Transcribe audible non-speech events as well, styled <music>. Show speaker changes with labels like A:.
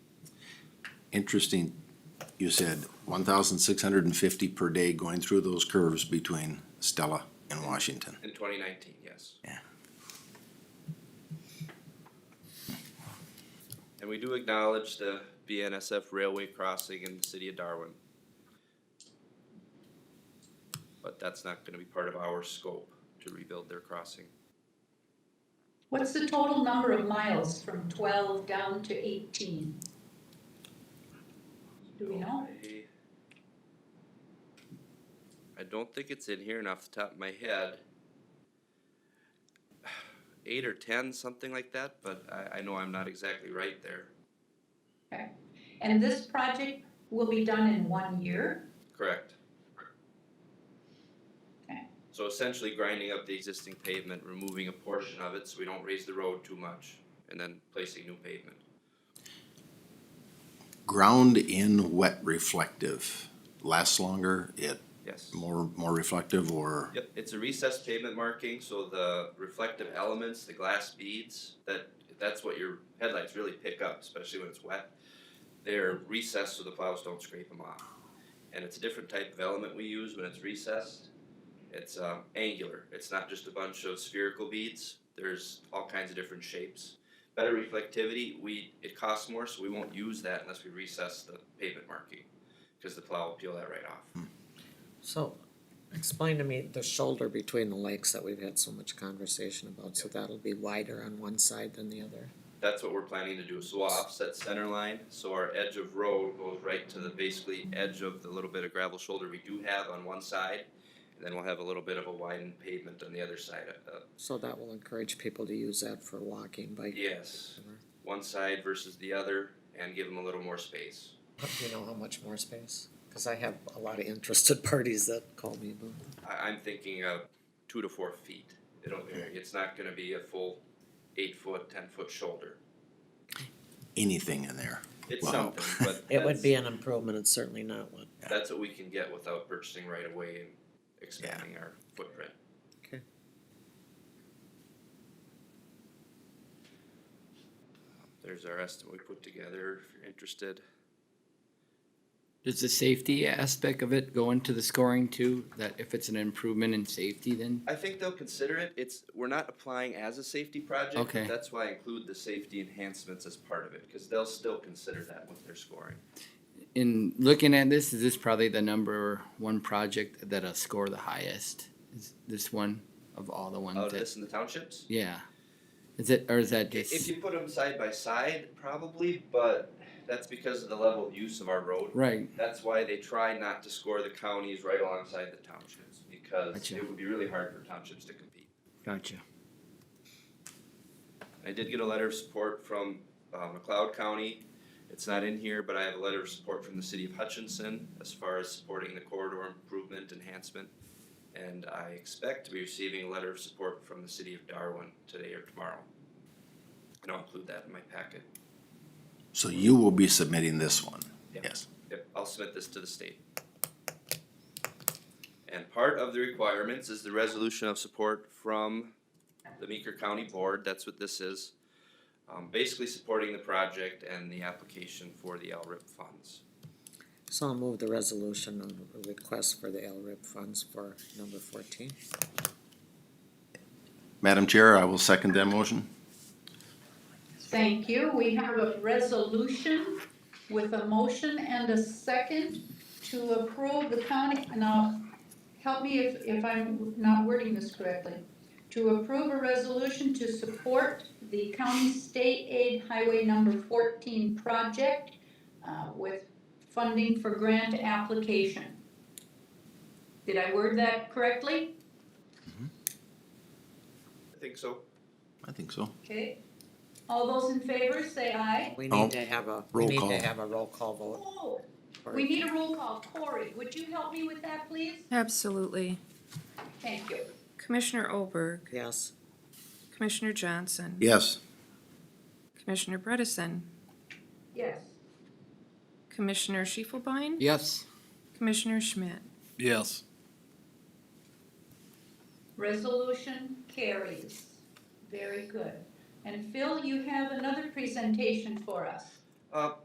A: interesting, you said one thousand six hundred and fifty per day going through those curves between Stella and Washington.
B: In twenty nineteen, yes.
A: Yeah.
B: And we do acknowledge the BNSF railway crossing in the city of Darwin. But that's not gonna be part of our scope to rebuild their crossing.
C: What's the total number of miles from twelve down to eighteen? Do we know?
B: I- I don't think it's in here and off the top of my head. <sighs> Eight or ten, something like that, but I, I know I'm not exactly right there.
C: And this project will be done in one year?
B: Correct.
C: Okay.
B: So essentially grinding up the existing pavement, removing a portion of it so we don't raise the road too much, and then placing new pavement.
A: Ground in wet reflective lasts longer, it
B: Yes.
A: more, more reflective or?
B: Yep, it's a recessed pavement marking, so the reflective elements, the glass beads, that, that's what your headlights really pick up, especially when it's wet. They're recessed so the plows don't scrape them off. And it's a different type of element we use when it's recessed. It's, um, angular, it's not just a bunch of spherical beads, there's all kinds of different shapes. Better reflectivity, we, it costs more, so we won't use that unless we recess the pavement marking, cause the plow will peel that right off.
D: So, explain to me the shoulder between the lakes that we've had so much conversation about, so that'll be wider on one side than the other?
B: That's what we're planning to do, so we'll offset center line, so our edge of road goes right to the basically edge of the little bit of gravel shoulder we do have on one side. And then we'll have a little bit of a widened pavement on the other side of, uh,
D: So that will encourage people to use that for walking, bike.
B: yes, one side versus the other and give them a little more space.
D: Do you know how much more space? Cause I have a lot of interested <laughs> parties that call me about that.
B: I, I'm thinking of two to four feet, it'll vary, it's not gonna be a full eight foot, ten foot shoulder.
A: anything in there.
B: It's
A: Wow.
B: something, but
D: <laughs> It would be
B: that's,
D: an improvement, it's certainly not one.
B: that's what we can get without purchasing right away and expanding our footprint. There's our estimate we put together, if you're interested.
E: Does the safety aspect of it go into the scoring too? That if it's an improvement in safety, then
B: I think they'll consider it, it's, we're not applying as a safety project.
E: Okay.
B: That's why I include the safety enhancements as part of it, cause they'll still consider that with their scoring.
E: in looking at this, is this probably the number one project that'll score the highest? Is this one of all the ones
B: Out of
E: that?
B: Oh, this in the townships?
E: Yeah. Is it or is that
B: I- If
E: just
B: you put them side by side, probably, but that's because of the level of use of our road.
E: right?
B: That's why they try not to score the counties right alongside the townships, because
E: Gotcha.
B: it would be really hard for townships to compete.
E: Gotcha.
B: I did get a letter of support from uh, McLeod County. It's not in here, but I have a letter of support from the city of Hutchinson as far as supporting the corridor improvement enhancement. And I expect to be receiving a letter of support from the city of Darwin today or tomorrow. And I'll include that in my packet.
A: So you will be submitting this one?
B: Yeah.
A: Yes.
B: Yep, I'll submit this to the state. And part of the requirements is the resolution of support from the Meeker County Board, that's what this is. Um, basically supporting the project and the application for the LRIP funds.
D: So I'll move the resolution on the request for the LRIP funds for number fourteen.
A: Madam Chair, I will second that motion.
C: Thank you. We have a resolution with a motion and a second to approve the county, now, help me if, if I'm not wording this correctly. To approve a resolution to support the county state aid highway number fourteen project uh, with funding for grant application. Did I word that correctly?
B: I think so.
A: I think so.
C: Okay. All those in favor, say aye.
D: We
A: Oh,
D: need to have a, we
A: roll
D: need
A: call.
D: to have a roll call vote.
C: Oh,
D: for-
C: We need a roll call. Corey, would you help me with that, please?
F: Absolutely.
C: Thank you.
F: Commissioner Olberg,
D: Yes,
F: Commissioner Johnson,
A: Yes,
F: Commissioner Bredesen,
C: Yes.
F: Commissioner Schiefelbein,
E: Yes.
F: Commissioner Schmidt.
G: Yes.
C: Resolution carries. Very good. And Phil, you have another presentation for us.
B: Uh,